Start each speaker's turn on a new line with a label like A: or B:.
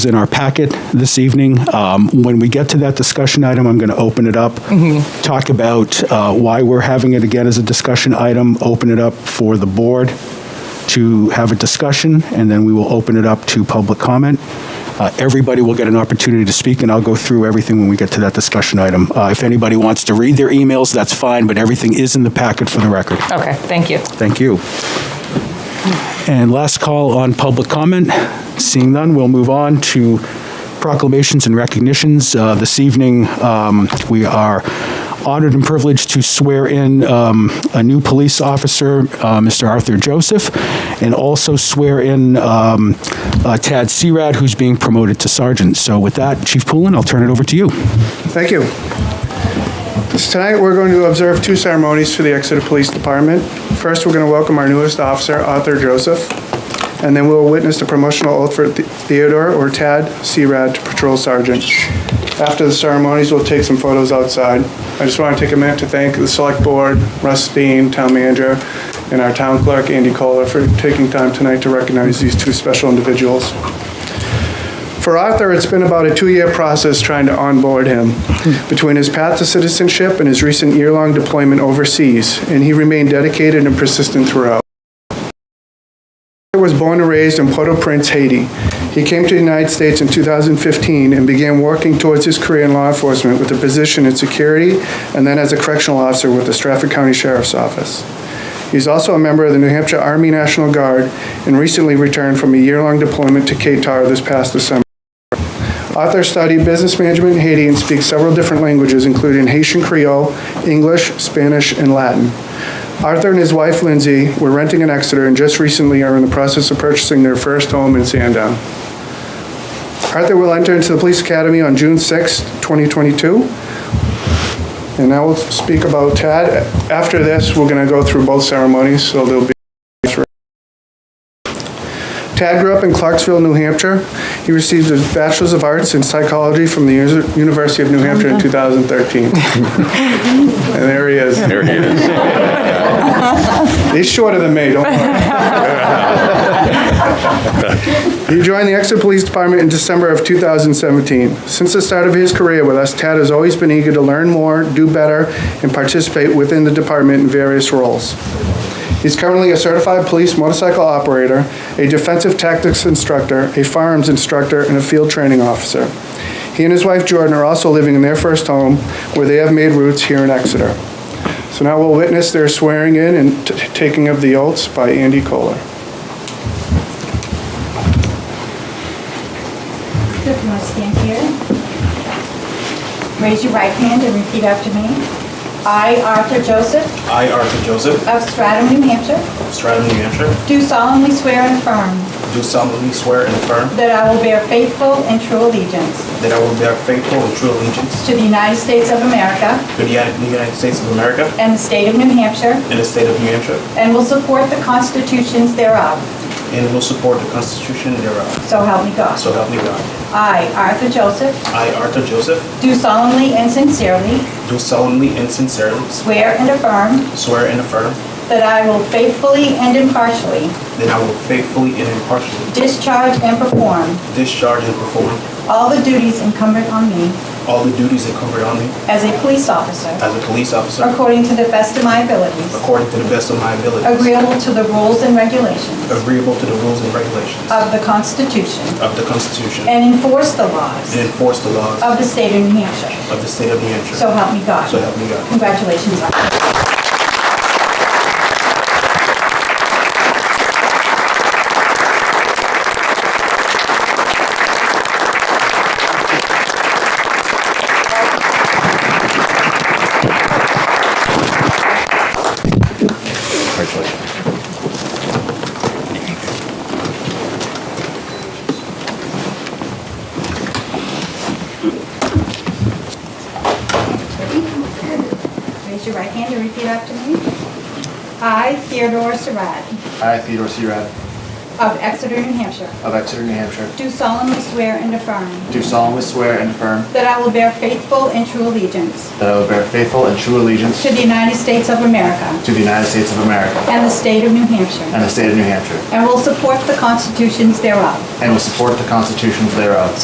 A: in our packet this evening. Um, When we get to that discussion item, I'm going to open it up, talk about uh, why we're having it again as a discussion item, open it up for the board to have a discussion, and then we will open it up to public comment. Uh, Everybody will get an opportunity to speak, and I'll go through everything when we get to that discussion item. Uh, If anybody wants to read their emails, that's fine, but everything is in the packet for the record.
B: Okay, thank you.
A: Thank you. And last call on public comment. Seeing none, we'll move on to proclamations and recognitions. Uh, This evening, um, we are honored and privileged to swear in um, a new police officer, uh, Mr. Arthur Joseph, and also swear in um, uh, Tad Serad, who's being promoted to sergeant. So with that, Chief Poulin, I'll turn it over to you.
C: Thank you. So Tonight, we're going to observe two ceremonies for the Exeter Police Department. First, we're going to welcome our newest officer, Arthur Joseph, and then we'll witness the promotional oath for The- Theodore, or Tad, Searad, to Patrol Sergeant. After the ceremonies, we'll take some photos outside. I just want to take a minute to thank the Select Board, Russ Dean, Town Manager, and our Town Clerk, Andy Kohler, for taking time tonight to recognize these two special individuals. For Arthur, it's been about a two-year process trying to onboard him between his path to citizenship and his recent year-long deployment overseas, and he remained dedicated and persistent throughout. Arthur was born and raised in Port-au-Prince, Haiti. He came to the United States in 2015 and began working towards his career in law enforcement with a position in security and then as a correctional officer with the Stratford County Sheriff's Office. He's also a member of the New Hampshire Army National Guard and recently returned from a year-long deployment to Qatar this past December. Arthur studied business management in Haiti and speaks several different languages, including Haitian Creole, English, Spanish, and Latin. Arthur and his wife Lindsay were renting in Exeter and just recently are in the process of purchasing their first home in Sandown. Arthur will enter into the police academy on June 6, 2022. And now we'll speak about Tad. After this, we're going to go through both ceremonies, so there'll be Tad grew up in Clarksville, New Hampshire. He received his Bachelor's of Arts in Psychology from the Uni- University of New Hampshire in 2013. And there he is. There he is. He's shorter than me, don't worry. He joined the Exeter Police Department in December of 2017. Since the start of his career with us, Tad has always been eager to learn more, do better, and participate within the department in various roles. He's currently a certified police motorcycle operator, a defensive tactics instructor, a firearms instructor, and a field training officer. He and his wife Jordan are also living in their first home, where they have made roots here in Exeter. So now we'll witness their swearing in and t- taking of the oaths by Andy Kohler.
D: If you want to stand here. Raise your right hand and repeat after me. I, Arthur Joseph
E: I, Arthur Joseph,
D: of Stratham, New Hampshire,
E: of Stratham, New Hampshire,
D: do solemnly swear and affirm
E: do solemnly swear and affirm
D: that I will bear faithful and true allegiance
E: that I will bear faithful and true allegiance
D: to the United States of America
E: to the Uni- the United States of America
D: and the state of New Hampshire,
E: and the state of New Hampshire,
D: and will support the constitutions thereof.
E: and will support the Constitution thereof.
D: So help me God.
E: So help me God.
D: I, Arthur Joseph,
E: I, Arthur Joseph,
D: do solemnly and sincerely
E: do solemnly and sincerely
D: swear and affirm
E: swear and affirm
D: that I will faithfully and impartially
E: that I will faithfully and impartially
D: discharge and perform
E: discharge and perform
D: All the duties incumbent on me
E: all the duties incumbent on me
D: as a police officer,
E: as a police officer
D: according to the best of my abilities,
E: according to the best of my abilities,
D: agreeable to the rules and regulations
E: agreeable to the rules and regulations
D: of the Constitution,
E: of the Constitution, and
D: and enforce the laws
E: enforce the laws
D: of the state of New Hampshire.
E: of the state of New Hampshire.
D: So help me God.
E: So help me God.
D: Congratulations, Officer. Raise your right hand and repeat after me. I, Theodore Surratt,
F: I, Theodore Searad,
D: of Exeter, New Hampshire,
F: of Exeter, New Hampshire,
D: do solemnly swear and affirm
F: do solemnly swear and affirm
D: that I will bear faithful and true allegiance
F: that I will bear faithful and true allegiance
D: to the United States of America
F: to the United States of America
D: and the state of New
F: and
D: Hampshire,
F: the state of New Hampshire,
D: and will support the constitutions thereof.
F: and will support the constitutions thereof.